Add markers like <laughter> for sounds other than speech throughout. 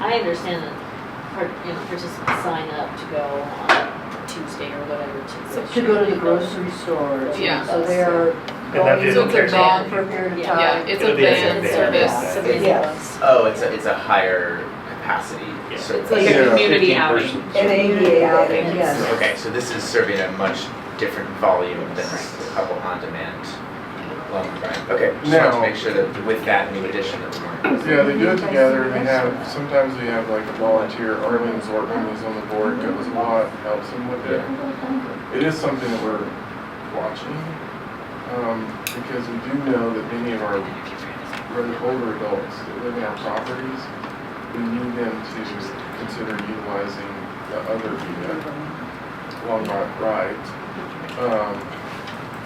I understand that, part- you know, participants sign up to go on Tuesday or whatever to. To go to the grocery store. to- Yeah. So they're that going is to a the van. for a period of Yeah. Yeah, time. Um, it's a It'll be a van van service. It's a busy Yeah. bus. Oh, it's a, it's a higher capacity Yeah. It's service. like a Yeah, community 15 outing. persons. An ADA outing, yes. Okay, so this is serving a much different volume than like a couple on-demand loan, right? Okay, just wanted to Now- make sure that with that new addition that we weren't. Yeah, they do it together, and they have, sometimes they have like a volunteer, Arlene Zortman who's on the board, goes a lot, helps them with it. It is something that we're watching, um, because we do know that many of our, really older adults that live in our properties, we need them to consider utilizing the other VDEC, Long Rock Ride, um,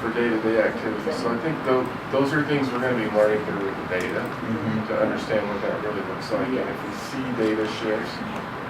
for day-to-day activities. So I think tho, those are things we're gonna be learning through the data to understand what that really looks like. And if we see data shifts,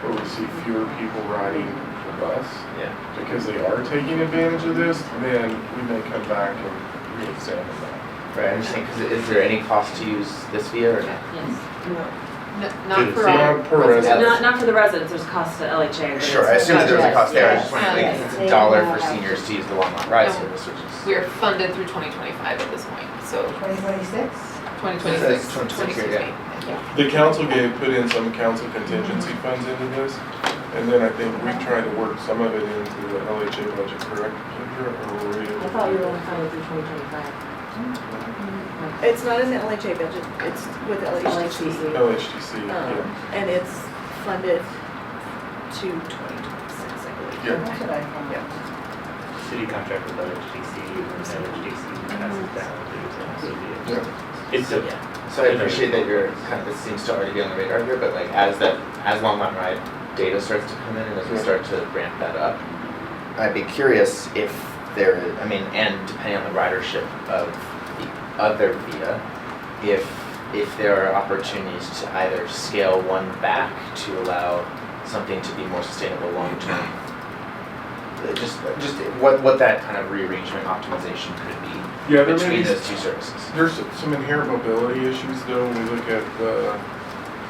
or we see fewer people riding the bus, Yeah. because they are taking advantage of this, then we may come back and reexamine that. Right, I'm just thinking, 'cause is there any cost to use this via or not? Yes. N- To Not Uh, for the our. Not per resident. Not, not for the residents, there's cost to LHA. but Sure, I it's- assume that there was a cost there, I just wanted to Yeah. think it's a dollar for seniors to use the Longmont Ride service, which is. We are funded through 2025 at this point, so Twenty twenty-six? 2026, That's 26, 2026, yeah. yeah. The council gave, put in some council contingency funds into this, and then I think we tried to work some of it into the LHA budget, correct? Kendra? Or were we able to I thought we do were that? only funded through 2025. It's not in the LHA budget, it's with LHTC, <laughs> LHCC. Uh-huh. LHTC, yeah. Um, and it's funded to 2026, I believe. Yeah. That's what I found. City contract with LHDC, and LHDC passes down to the city. Yeah. It's a, So I appreciate that you're, kind of, this seems to already be on the radar here, but like as that, as Longmont Ride data starts to come in and as we start to ramp that up, I'd be curious if there, I mean, and depending on the ridership of the other via, if, if there are opportunities to either scale one back to allow something to be more sustainable long-term. Uh, Just, just what, what that kind of rearrangement optimization could be Yeah, there may between be those two services. There's some inherent mobility issues though, when we look at the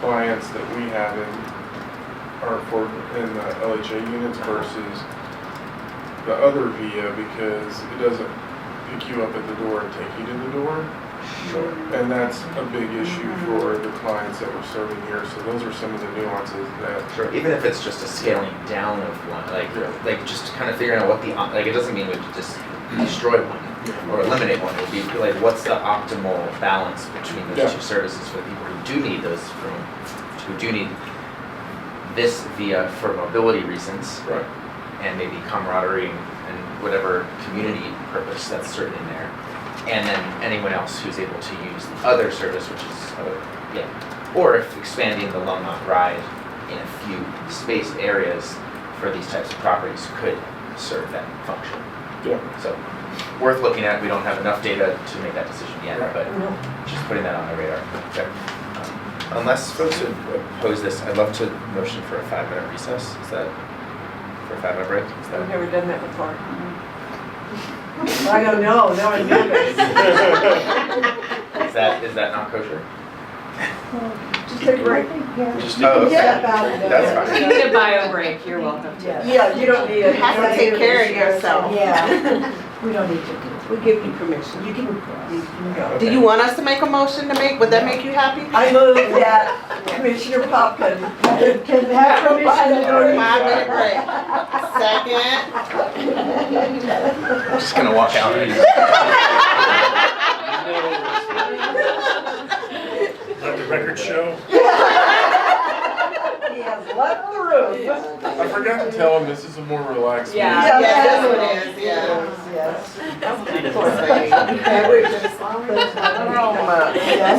clients that we have in our for, in the LHA units versus the other VIA because it doesn't pick you up at the door and take you to the door. Sure. And that's a big issue for the clients that we're serving here, so those are some of the nuances that. Sure, even if it's just a scaling down of one, like, like just kind of figuring out what the, op- like, it doesn't mean we just destroy one or eliminate one, it would be like, what's the optimal balance between those Yeah. two services for people who do need those, for, who do need this via for mobility reasons Right. and maybe camaraderie and- and whatever community purpose that's certain in there. And then anyone else who's able to use the other service, which is, other- yeah. Or if expanding the Longmont ride in a few spaced areas for these types of properties could serve that function. Yeah. <laughs> So worth looking at, we don't have enough data to make that decision yet, Right. but just putting that on the radar. Okay. Um, Unless folks would oppose this, I'd love to motion for a five-minute recess, is that, for a five-minute break, is that? I've never done that before. <laughs> I don't know, now I know. Is that, is that not kosher? Just a break. just Oh, okay. Yeah, about it. That's You need a bio break, you're welcome to. <laughs> Yeah. Yeah, you don't need it. You have to take care of yourself. <laughs> Yeah. We don't need to. We give you permission. You can, you can go. Okay. Do you want us to make a motion to make, would that make you happy? I move that Commissioner Poppin. Can can have permission to go. Five minute break. Second, I'm just gonna walk <laughs> out. Let the record show. He has left the room. I forgot to tell them this is a more relaxed. Yeah. meeting. Yeah, yes, that's- it is, yeah. Yes. Say, Okay, we're just. Come up. Yes.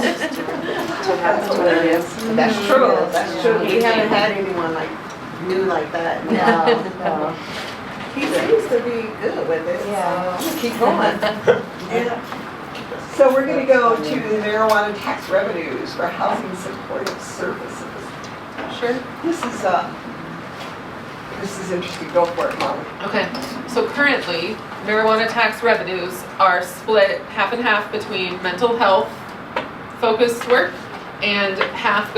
That's what it is. That's true, that's true. Yeah. We haven't had anyone like, new like that. No, He seems to be good with it. so Yeah. I'm gonna Keep going. Yeah. So we're gonna go to the marijuana tax revenues for housing supportive services. Sure. This is, uh, this is interesting, go for it, Molly. Okay, so currently marijuana tax revenues are split half and half between mental health focused work and half goes